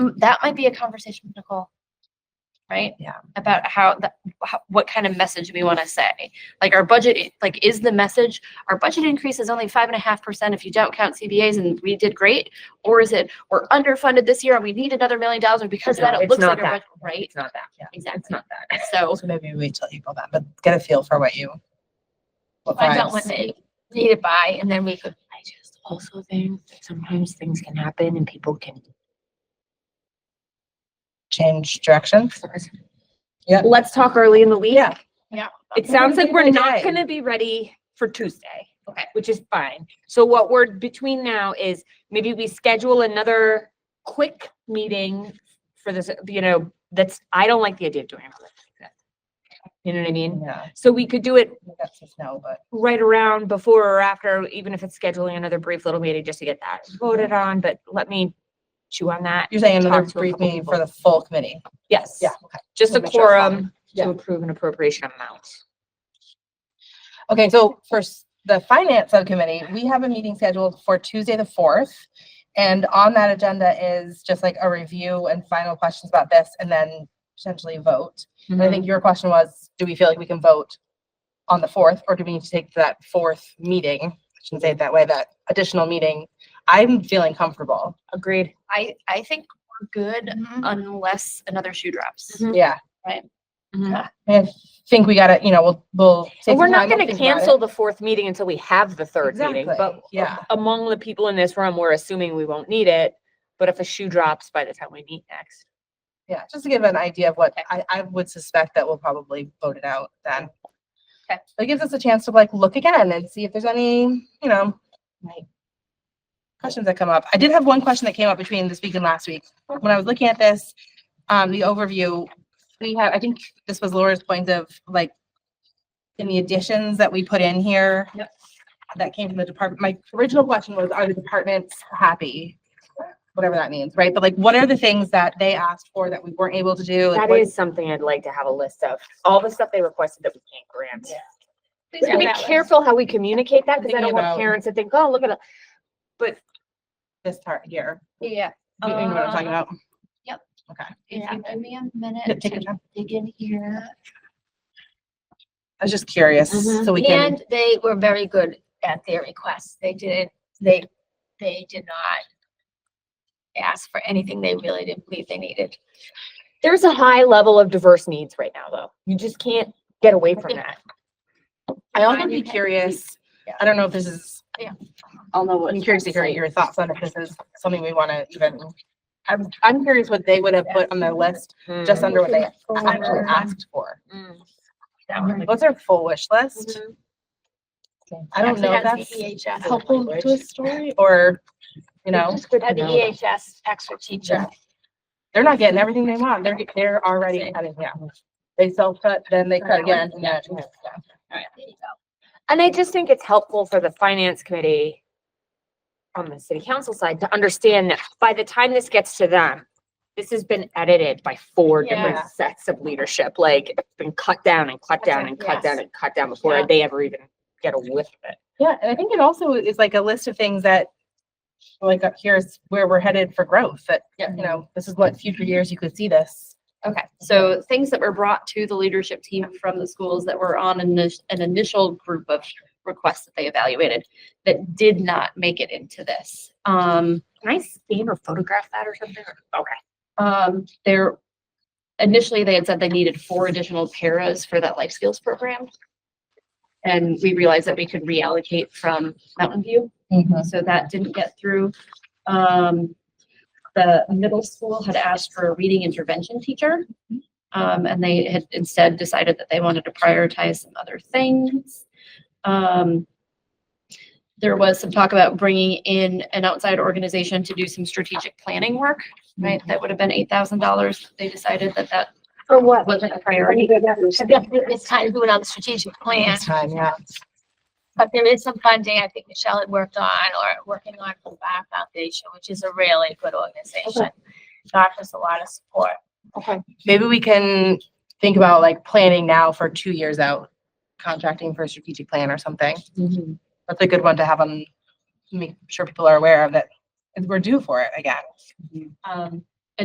Mm, That might be a conversation with Nicole. Right? Yeah. About how, the, how, what kind of message we want to say. Like our budget, i- like is the message, our budget increase is only five and a half percent if you don't count CBAs and we did great? Or is it, we're underfunded this year and we need another million dollars and because of No, that, it it's looks like not our that. budget, right? It's not that. Yeah. It's Exactly. not that. So So maybe we wait till April then, but get a feel for what you. what find out vibes. what they need it by and then we could, I just also think that sometimes things can happen and people can. Change directions. Yeah. Let's talk early in the week. Yeah. Yeah. It sounds like we're not Okay. gonna be ready for Tuesday. Okay. Which is fine. So what we're between now is maybe we schedule another quick meeting for this, you know, that's, I don't like the idea of doing it. on the 25th. You know what I mean? Yeah. So we could do it That's just no, but right around before or after, even if it's scheduling another brief little meeting just to get that voted on, but let me chew on that. you're saying another Talk to a brief couple meeting for people. the full committee. Yes. Yeah, Just a Make sure it's fine. quorum Yeah. to approve an appropriation amount. Okay, so for s- the finance subcommittee, we have a meeting scheduled for Tuesday, the fourth. And on that agenda is just like a review and final questions about this and then potentially vote. And I think your question was, do we feel like we can vote on the fourth or do we need to take that fourth meeting? I shouldn't say it that way, that additional meeting. I'm feeling comfortable. Agreed. I, I think we're good Mm-hmm. unless another shoe drops. Mhm. Yeah. Mm-hmm. Mhm. I think we gotta, you know, we'll, we'll. take And some we're time, not we'll gonna think about it. cancel the fourth meeting until we have the third meeting, Exactly, but yeah. among the people in this room, we're assuming we won't need it. But if a shoe drops by the time we meet next. Yeah, just to give an idea of what Okay. I, I would suspect that we'll probably vote it out then. Okay. It gives us a chance to like look again and see if there's any, you know, like questions that come up. I did have one question that came up between this week and last week. When I was looking at this, um, the overview, we have, I think this was Laura's point of like in the additions that we put in here. Yep. That came from the department. My original question was, are the departments happy? Whatever that means, right? But like, what are the things that they asked for that we weren't able to do? Like, That what- is something I'd like to have a list of, all the stuff they requested that we can't grant. Please We have gotta that Be list. careful how we communicate that, because I Thinking don't want about- parents to think, oh, look at it. This part here. Yeah. You know what I'm talking Uh, about? If Yeah. you give me a Yeah, minute take your to time. dig in here. I was just curious, Mhm. so we can, And they were very good at their requests. They didn't, they, they did not ask for anything they really didn't believe they needed. There's a high level of diverse needs right now, though. You just can't get away from that. I also Fine, be you can- curious, Yeah. I don't know if this is. Yeah. I'll know what. I'm curious to hear your thoughts on if this is something we wanna even, I'm, I'm curious what they would have put on their list, just under what they actually Mm-hmm. asked for. Mm. What's our full wish list? Mhm. I Um, don't know if that's E Actually, has the EHS. helpful to a story or, you know, E It's good to Had the know E that. EHS extra teacher. they're not getting everything they want. They're, get- they're already cutting, yeah. They self-cut, then they cut again. and then- There you go. And I just think it's helpful for the finance committee on the city council side to understand that by the time this gets to them, this has been edited by four Yeah. different sets of leadership, like it's been cut down and cut down and cut down Yes. and cut down before Yeah. they ever even get a whiff of it. Yeah, and I think it also is like a list of things that, like, uh, here's where we're headed for growth, that, Yeah. you know, this is what future years you could see this. Okay, so things that were brought to the leadership team from the schools that were on an, init- an initial group of requests that they evaluated that did not make it into this. Um, Can I scan or photograph that or something? Okay. um, there, initially they had said they needed four additional paras for that life skills program. And we realized that we could reallocate from Mountain View. Mm-hmm. so that didn't get through. Um, the middle school had asked for a reading intervention teacher. Um, and they had instead decided that they wanted to prioritize some other things. Um, there was some talk about bringing in an outside organization to do some strategic planning work, right? That would have been eight thousand dollars. They decided that that Mm-hmm. For what? wasn't a priority. It's time to do it on the strategic plan, Next Time, yeah. but there is some funding I think Michelle had worked on or working on for the Bar Foundation, which is a really good organization. Offers a lot of support. Okay. Maybe we can think about like planning now for two years out, contracting for a strategic plan or something. Mm-hmm. That's a good one to have on, make sure people are aware of that, and we're due for it again. Um,